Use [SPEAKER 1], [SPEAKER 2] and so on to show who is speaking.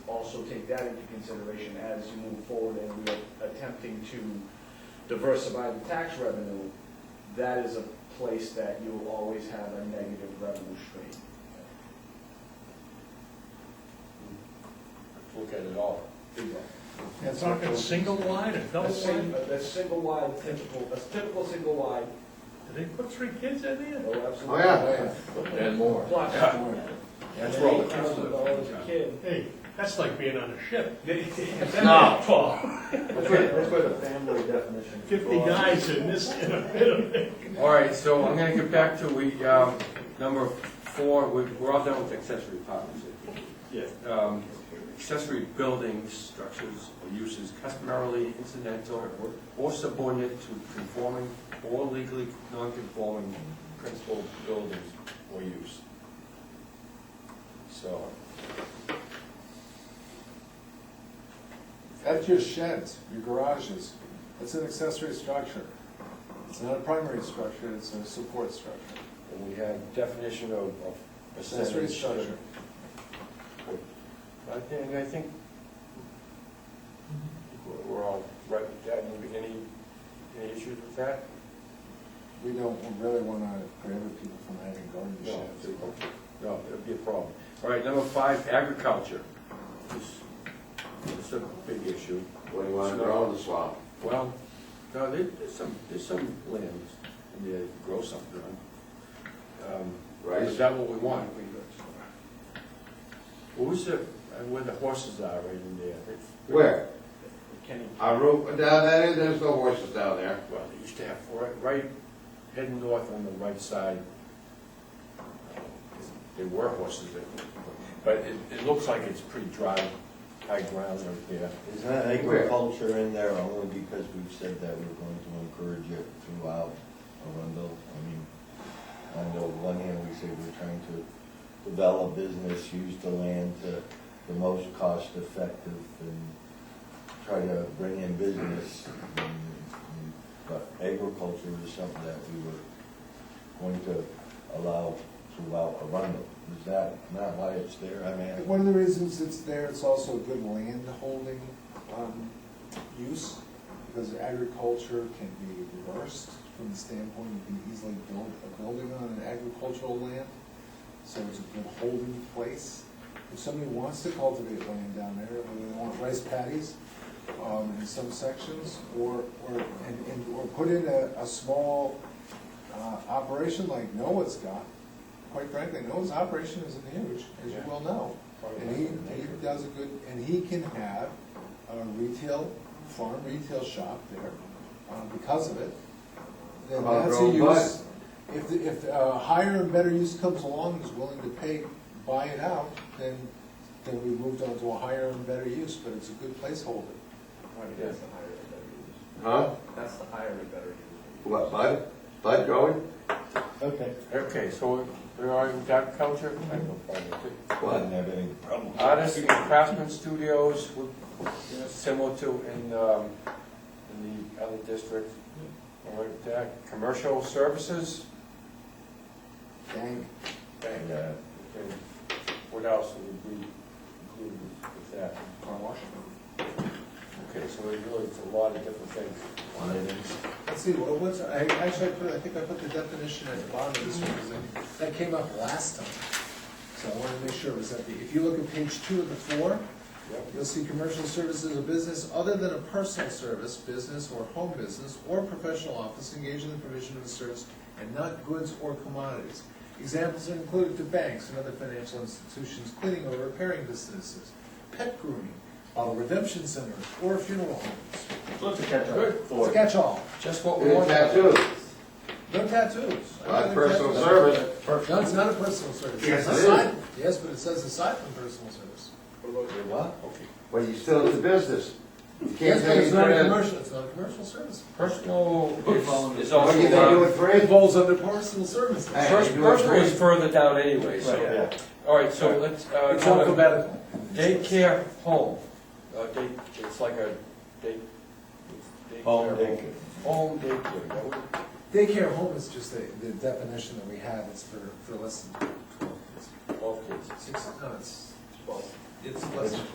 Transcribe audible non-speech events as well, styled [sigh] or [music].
[SPEAKER 1] also take that into consideration as you move forward and we are attempting to diversify the tax revenue, that is a place that you will always have a negative revenue stream.
[SPEAKER 2] Look at it all.
[SPEAKER 3] You're talking single wide or
[SPEAKER 1] A
[SPEAKER 3] double
[SPEAKER 1] sing-
[SPEAKER 3] wide?
[SPEAKER 1] a- a single wide, typical, a typical single wide,
[SPEAKER 3] Did they put three kids in there?
[SPEAKER 1] oh,
[SPEAKER 4] Oh,
[SPEAKER 1] absolutely.
[SPEAKER 4] yeah.
[SPEAKER 2] And more.
[SPEAKER 1] Plus,
[SPEAKER 2] That's where all the kids
[SPEAKER 1] $8,000 a
[SPEAKER 2] live.
[SPEAKER 1] kid.
[SPEAKER 3] Hey, that's like being on a ship.
[SPEAKER 1] No.
[SPEAKER 3] Oh.
[SPEAKER 4] That's where, that's where the family definition.
[SPEAKER 3] Fifty guys in this, [laughs] in a bit of it.
[SPEAKER 5] All right, so I'm gonna get back to we, um, number four, we- we're all done with accessory apartments.
[SPEAKER 2] Yeah.
[SPEAKER 5] Um, Accessory buildings, structures, or uses customarily incidental or subordinate to conforming or legally non-conforming principal buildings or use. So,
[SPEAKER 4] That's your sheds, your garages. It's an accessory structure. It's not a primary structure, it's a support structure.
[SPEAKER 5] and we have definition of of
[SPEAKER 4] Accessory
[SPEAKER 5] percentage.
[SPEAKER 4] structure.
[SPEAKER 5] I think, I think we're- we're all right with that. Any- Any, any issues with that?
[SPEAKER 4] We don't really wanna prohibit people from having garden
[SPEAKER 5] No,
[SPEAKER 4] sheds.
[SPEAKER 5] no, it'd be a problem. All right, number five, agriculture. This- It's a big issue.
[SPEAKER 2] What do you wanna grow in the swamp?
[SPEAKER 5] Well, no, there- there's some, there's some lands, and you grow something on. Um, Is
[SPEAKER 2] Rice?
[SPEAKER 5] that what we want? We- What was the, uh, where the horses are right in there? It's-
[SPEAKER 2] Where?
[SPEAKER 1] Kenny,
[SPEAKER 2] I wrote, down there, there's no horses down there.
[SPEAKER 5] Well, they used to have, right, right, heading north on the right side, there were horses there. But it, it looks like it's pretty dry, high ground right there.
[SPEAKER 6] Is that agriculture in there only because we've said that we're going to encourage it throughout Arundel? I mean, on the one hand, we say we're trying to develop business, use the land to the most cost effective and try to bring in business. And- and- But agriculture is something that we were going to allow throughout Arundel. Is that not why it's there? I mean,
[SPEAKER 4] One of the reasons it's there, it's also a good land holding, um, use, because agriculture can be reversed from the standpoint, you can easily build a building on an agricultural land, so it's a good holding place. If somebody wants to cultivate land down there, whether they want rice paddies, um, in some sections, or, or, and, and, or put in a, a small, uh, operation like Noah's got, quite frankly, Noah's operation isn't huge, as you well know. And he, he does a good, and he can have a retail, farm retail shop there, uh, because of it. Then
[SPEAKER 2] About
[SPEAKER 4] that's a
[SPEAKER 2] grown bud.
[SPEAKER 4] use, if, the- if a higher and better use comes along and is willing to pay, buy it out, then, then we moved on to a higher and better use, but it's a good placeholder.
[SPEAKER 5] Yes.
[SPEAKER 2] Huh?
[SPEAKER 1] that's the higher and better
[SPEAKER 2] What, bud? Bud growing?
[SPEAKER 6] okay.
[SPEAKER 5] Okay, so there are agriculture, I have no problem with it.
[SPEAKER 6] I didn't have any problem with that.
[SPEAKER 5] Artists and craftsmen studios, would, you know, similar to in, um, in the other district. All right, with that, commercial services,
[SPEAKER 4] Dang.
[SPEAKER 5] bang,
[SPEAKER 6] Yeah.
[SPEAKER 5] okay. uh, What else would be included with that?
[SPEAKER 4] Car wash.
[SPEAKER 5] Okay, so it really, it's a lot of different things.
[SPEAKER 4] Let's see, well, what's, I, actually, I put, I think I put the definition at the bottom of this one, because I- that came up last time. So I wanted to make sure it was at the, if you look at page two of the four,
[SPEAKER 5] Yep.
[SPEAKER 4] you'll see commercial services a business other than a personal service, business or home business, or professional office engaged in the provision of a service and not goods or commodities. Examples are included to banks and other financial institutions, cleaning or repairing businesses, pet grooming, bottle redemption centers, or funeral homes.
[SPEAKER 2] Look at that. Good.
[SPEAKER 4] It's a catch-all.
[SPEAKER 5] Just what we
[SPEAKER 2] And
[SPEAKER 5] want.
[SPEAKER 2] tattoos.
[SPEAKER 4] No tattoos. Oh, I
[SPEAKER 2] Not
[SPEAKER 4] don't
[SPEAKER 2] personal
[SPEAKER 4] think
[SPEAKER 2] service.
[SPEAKER 4] tattoos- No, it's not a personal service.
[SPEAKER 2] Yes, it
[SPEAKER 4] Aside- Yes, but it says aside from personal service.
[SPEAKER 6] What?
[SPEAKER 5] Okay.
[SPEAKER 2] Well, you still in the business. You can't
[SPEAKER 4] Yes, but
[SPEAKER 2] take
[SPEAKER 4] it's
[SPEAKER 2] it
[SPEAKER 4] not
[SPEAKER 2] for
[SPEAKER 4] a
[SPEAKER 2] that.
[SPEAKER 4] commercial, it's not a commercial service.
[SPEAKER 5] Personal is- is
[SPEAKER 2] What are you gonna do
[SPEAKER 5] also,
[SPEAKER 2] with
[SPEAKER 4] It
[SPEAKER 2] free?
[SPEAKER 4] falls under personal services.
[SPEAKER 2] Hey,
[SPEAKER 5] Pers-
[SPEAKER 2] you do it
[SPEAKER 5] personal is
[SPEAKER 2] free.
[SPEAKER 5] further down anyway, so,
[SPEAKER 6] Yeah.
[SPEAKER 5] all right, so let's, uh,
[SPEAKER 4] It's
[SPEAKER 5] go to
[SPEAKER 4] alphabetical.
[SPEAKER 5] daycare home, uh, day, it's like a day. daycare
[SPEAKER 6] Home daycare.
[SPEAKER 5] Home daycare, that would-
[SPEAKER 4] Daycare home is just the, the definition that we have, it's for, for less than twelve kids.
[SPEAKER 5] all kids.
[SPEAKER 4] Six, no, it's, it's less than